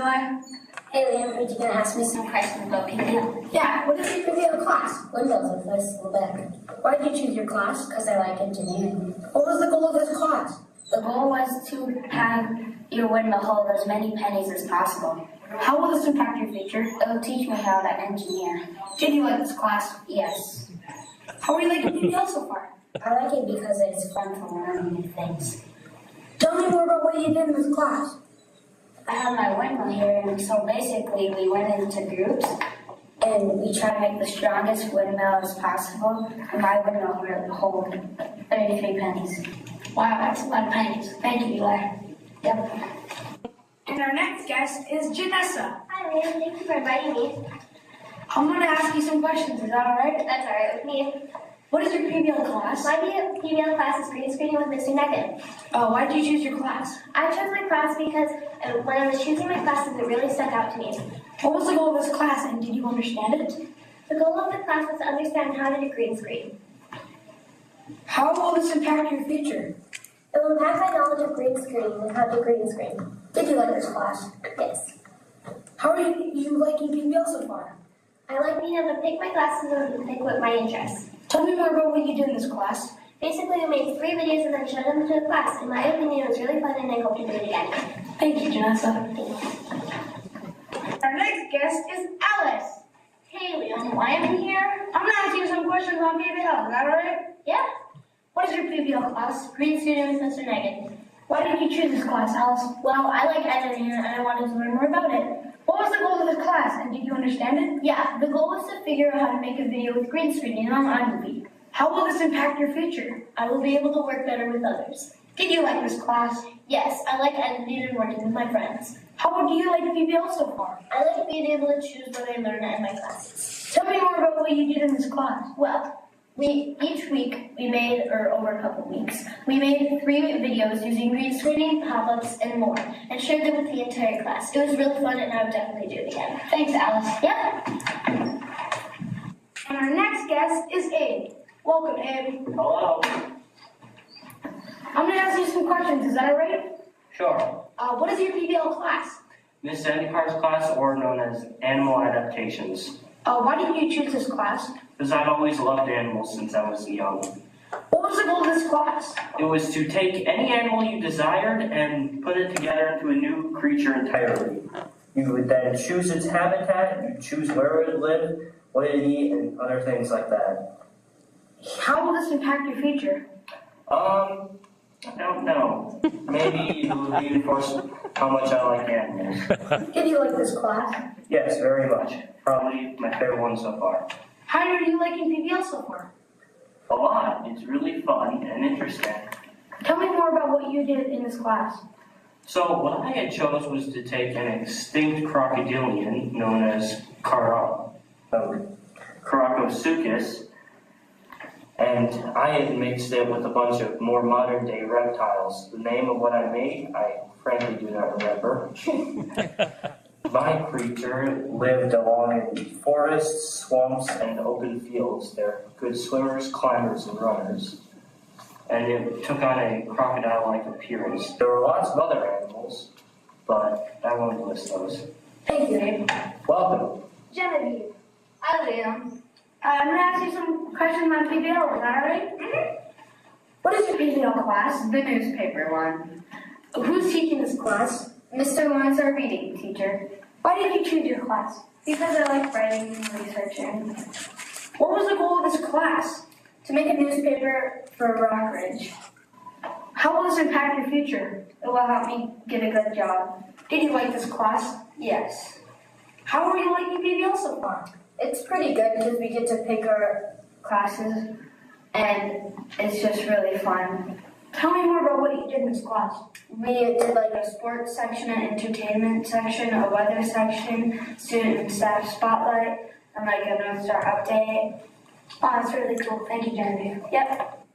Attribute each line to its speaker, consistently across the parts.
Speaker 1: Eli?
Speaker 2: Hey Liam, heard you gonna ask me some questions about PPL.
Speaker 3: Yeah, what is your favorite class?
Speaker 2: Windows and first school back.
Speaker 3: Why did you choose your class?
Speaker 2: Because I like engineering.
Speaker 3: What was the goal of this class?
Speaker 2: The goal was to have your window hold as many pennies as possible.
Speaker 4: How will this impact your future?
Speaker 2: It'll teach me how to engineer.
Speaker 4: Did you like this class?
Speaker 2: Yes.
Speaker 4: How are you liking PPL so far?
Speaker 2: I like it because it's fun to learn new things.
Speaker 3: Tell me more about what you did in this class.
Speaker 2: I have my window here, and so basically we went into groups and we tried to make the strongest windmill as possible. And my windmill will hold 33 pennies.
Speaker 4: Wow, that's a lot of pennies. Thank you, Eli.
Speaker 2: Yep.
Speaker 4: And our next guest is Janessa.
Speaker 5: Hi, Liam. Thank you for inviting me.
Speaker 4: I'm gonna ask you some questions, is that alright?
Speaker 5: That's all right with me.
Speaker 4: What is your PPL class?
Speaker 5: My new female class is green screening with Mr. Negan.
Speaker 4: Uh, why did you choose your class?
Speaker 5: I chose my class because uh, when I was choosing my classes, it really stuck out to me.
Speaker 4: What was the goal of this class and did you understand it?
Speaker 5: The goal of the class was to understand how to do green screen.
Speaker 4: How will this impact your future?
Speaker 5: It will impact my knowledge of green screening and how to green screen.
Speaker 3: Did you like this class?
Speaker 5: Yes.
Speaker 3: How are you, you liking PBL so far?
Speaker 5: I like being able to pick my classes and pick what my interests.
Speaker 4: Tell me more about what you did in this class.
Speaker 5: Basically, we made three videos and then showed them to the class. In my opinion, it was really fun and I hope to do it again.
Speaker 4: Thank you, Janessa.
Speaker 5: Thank you.
Speaker 4: Our next guest is Alice.
Speaker 5: Hey, Liam. Why am I here?
Speaker 4: I'm gonna ask you some questions on PPL, is that alright?
Speaker 5: Yeah.
Speaker 4: What is your PPL class?
Speaker 5: Green screening with Mr. Negan.
Speaker 4: Why did you choose this class, Alice?
Speaker 5: Well, I like editing and I wanted to learn more about it.
Speaker 4: What was the goal of this class, and did you understand it?
Speaker 5: Yeah, the goal was to figure out how to make a video with green screen and on iMovie.
Speaker 4: How will this impact your future?
Speaker 5: I will be able to work better with others.
Speaker 4: Did you like this class?
Speaker 5: Yes, I like editing and working with my friends.
Speaker 4: How do you like PPL so far?
Speaker 5: I like being able to choose what I learn in my classes.
Speaker 4: Tell me more about what you did in this class.
Speaker 5: Well, we each week we made, or over a couple weeks, we made three videos using green screening, pop-ups, and more, and shared them with the entire class. It was really fun, and I would definitely do it again.
Speaker 4: Thanks, Alice.
Speaker 5: Yeah.
Speaker 4: And our next guest is Abe. Welcome, Abe.
Speaker 6: Hello.
Speaker 4: I'm gonna ask you some questions, is that alright?
Speaker 6: Sure.
Speaker 4: Uh, what is your PPL class?
Speaker 6: Miss Endicar's class, or known as Animal Adaptations,
Speaker 4: Uh, why did you choose this class?
Speaker 6: because I've always loved animals since I was young.
Speaker 4: What was the goal of this class?
Speaker 6: It was to take any animal you desired and put it together into a new creature entirely. You would then choose its habitat, you choose where it would live, what it eat, and other things like that.
Speaker 4: How will this impact your future?
Speaker 6: Um, I don't know. Maybe it would reinforce how much I like animals.
Speaker 3: Did you like this class?
Speaker 6: Yes, very much. Probably my favorite one so far.
Speaker 4: How are you liking PPL so far?
Speaker 6: a lot. It's really fun and interesting.
Speaker 4: Tell me more about what you did in this class.
Speaker 6: So what I had chose was to take an extinct crocodilian known as Kara, um, Karakosuchus, and I had mixed it with a bunch of more modern day reptiles. The name of what I made, I frankly do not remember. My creature lived along in forests, swamps, and open fields. They're good swimmers, climbers, and runners and it took on a crocodile-like appearance. There were lots of other animals, but I won't list those.
Speaker 3: Thank you.
Speaker 6: Welcome.
Speaker 5: Genevieve.
Speaker 4: Hi, Liam. Uh, I'm gonna ask you some questions on PBL, is that alright? What is your PBL class? The newspaper one. Who's teaching this class?
Speaker 2: Mr. Lawrence, our reading teacher,
Speaker 4: Why did you choose your class?
Speaker 2: because I like writing and researching.
Speaker 4: What was the goal of this class?
Speaker 2: To make a newspaper for Rockridge,
Speaker 4: How will this impact your future?
Speaker 2: it will help me get a good job.
Speaker 4: Did you like this class?
Speaker 2: Yes.
Speaker 4: How are you liking PBL so far?
Speaker 1: It's pretty good because we get to pick our classes.
Speaker 2: And it's just really fun.
Speaker 4: Tell me more about what you did in this class.
Speaker 2: We did like a sports section, an entertainment section, a weather section, student and staff spotlight, and like a North Star update.
Speaker 4: Oh, that's really cool. Thank you, Genevieve.
Speaker 2: Yep.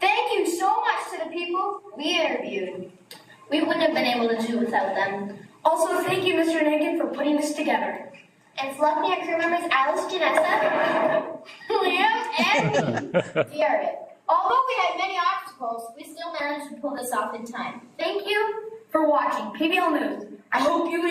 Speaker 5: Thank you so much to the people we interviewed. We wouldn't have been able to do without them.
Speaker 4: Also, thank you, Mr. Nankin, for putting this together.
Speaker 5: And selecting our crew members Alice, Janessa, Liam, and Jared. Although we had many obstacles, we still managed to pull this off in time. Thank you
Speaker 4: for watching PBL News. I hope you